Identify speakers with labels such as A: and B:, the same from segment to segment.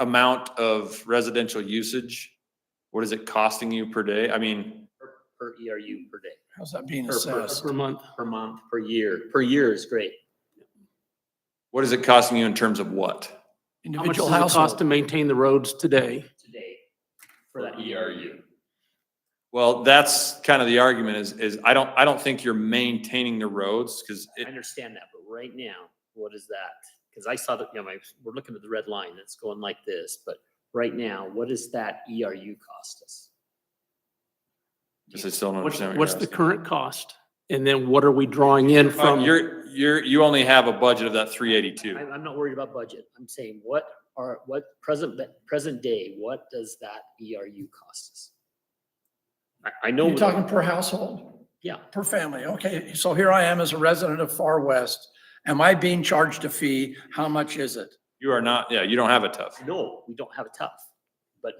A: amount of residential usage, what is it costing you per day? I mean,
B: per ERU per day,
C: How's that being
B: Per person.
C: assessed?
D: per month.
B: per month, per year. Per year is great.
A: what is it costing you in terms of what?
D: How much
C: Individual
D: does it cost
C: household?
D: to maintain the roads today?
B: Today. For that E ERU.
A: Well, that's kind of the argument is, is I don't, I don't think you're maintaining the roads because
B: I
A: it,
B: understand that, but right now, what is that? Because I saw that, you know, my, we're looking at the red line that's going like this, but right now, what does that ERU cost us?
A: because I still don't
D: What's,
A: understand. what
D: what's
A: you're
D: the
A: asking.
D: current cost? And then what are we drawing in
A: Uh,
D: from?
A: You're, you're, you only have a budget of that three eighty-two.
B: I'm, I'm not worried about budget. I'm saying what are, what present, present day, what does that ERU cost us? I, I know.
C: You're
B: what-
C: talking per household?
B: Yeah.
C: Per family. Okay, so here I am as a resident of Far West. Am I being charged a fee? How much is it?
A: You are not, yeah, you don't have a tough.
B: No, we don't have a tough. But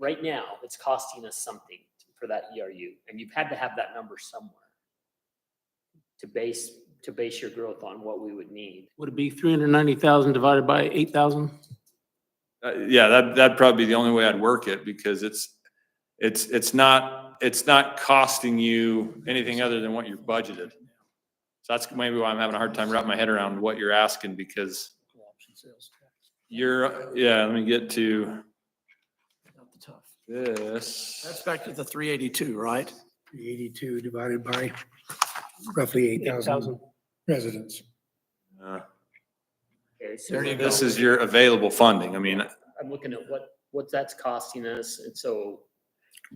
B: right now, it's costing us something for that ERU, and you've had to have that number somewhere to base, to base your growth on what we would need.
D: Would it be three hundred ninety thousand divided by eight thousand?
A: Uh, yeah, that, that'd probably be the only way I'd work it because it's, it's, it's not, it's not costing you anything other than what you budgeted. So that's maybe why I'm having a hard time wrapping my head around what you're asking because you're, yeah, let me get to
C: That's
A: this.
C: back to the three eighty-two, right?
E: 82 divided by roughly 8,000 residents.
A: Uh,
B: Okay, so
C: There you go.
A: This is your available funding. I mean,
B: I'm looking at what, what that's costing us, and so,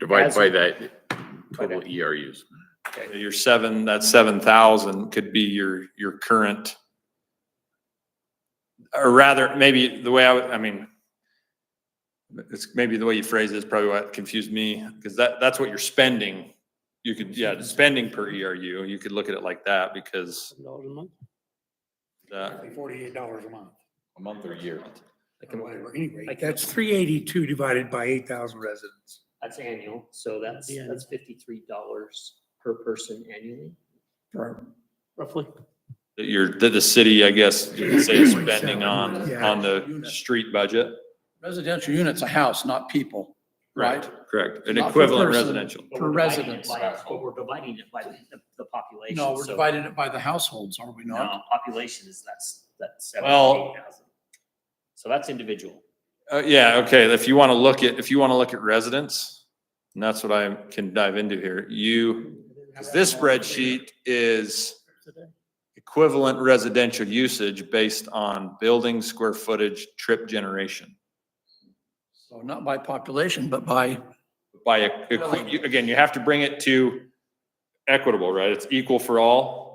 F: Divide
B: As-
F: by that total ERUs.
A: your seven, that seven thousand could be your, your current. Or rather, maybe the way I would, I mean, it's maybe the way you phrase it is probably what confused me, because that, that's what you're spending. You could, yeah, spending per ERU, you could look at it like that because
D: Dollars a month?
A: that,
E: $48 a month.
F: A month or a year.
E: Whatever, anyway,
B: Like-
E: that's 382 divided by 8,000 residents.
B: that's annual, so that's,
D: Yeah.
B: that's fifty-three dollars per person annually.
D: Roughly.
A: that you're, that the city, I guess, you could say is spending on,
E: Yeah.
A: on the street budget.
C: Residential unit's a house, not people. Right.
A: Correct, an
C: Not per
A: equivalent
C: person.
A: residential.
B: But
C: Per
B: we're dividing it
C: residence.
B: by- But we're dividing it by the, the population.
C: No, we're
B: so-
C: dividing it by the households, are we not?
B: No, population is that's, that's seven,
A: Well-
B: eight thousand. So that's individual.
A: Uh, yeah, okay, if you want to look at, if you want to look at residents, and that's what I can dive into here, you, 'cause this spreadsheet is equivalent residential usage based on building square footage, trip generation.
C: So not by population, but by,
A: By, a- equi- you- again, you have to bring it to equitable, right? It's equal for all.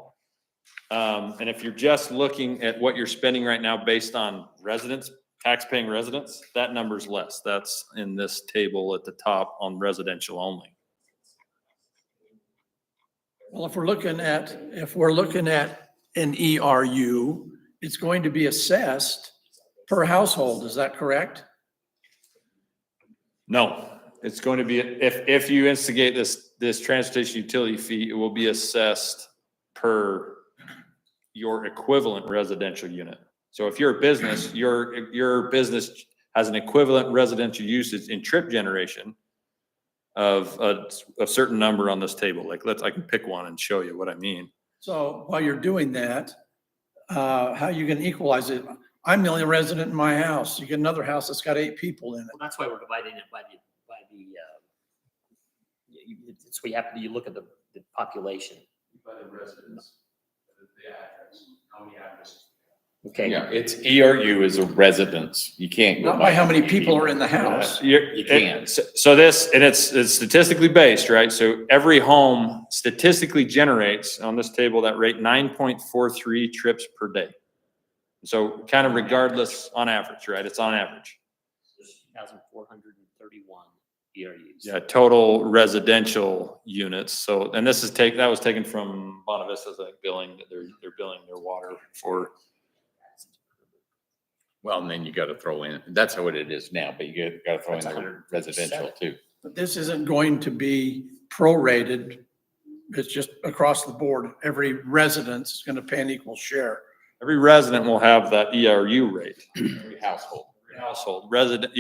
A: Um, and if you're just looking at what you're spending right now based on residents, tax-paying residents, that number's less. That's in this table at the top on residential only.
C: well, if we're looking at, if we're looking at an ERU, it's going to be assessed per household, is that correct?
A: No, it's going to be, if, if you instigate this, this transportation utility fee, it will be assessed per your equivalent residential unit. So if you're a business, your, your business has an equivalent residential usage in trip generation of a, a certain number on this table. Like, let's, I can pick one and show you what I mean.
C: So while you're doing that, uh, how you can equalize it? I'm the only resident in my house. You get another house that's got eight people in
B: Well, that's why we're dividing it by the, by the, uh, you- you- it's, we have, to you look at the, the population. Okay.
F: Yeah, it's ERU is a residence. You can't
C: it.
F: go
C: Not by
F: by.
C: how many people are in the house.
A: Uh, You're-
F: You can.
A: it- So so this, and it's, it's statistically based, right? So every home statistically generates on this table that rate nine point four three trips per day. So kind of regardless on average, right? It's on average.
B: Thousand four hundred and thirty-one ERUs.
A: Yeah, total residential units. So, and this is take, that was taken from Bonavista's like billing, that they're, they're billing their water for.
F: Well, and then you gotta throw in, that's how it is now, but you gotta throw in
B: That's a
F: the
B: hundred
F: residential
B: percent.
F: too.
C: But this isn't going to be prorated. It's just across the board. Every residence is going to pay an equal share.
A: Every resident will have that ERU E rate.
F: Every household.
A: household, resident,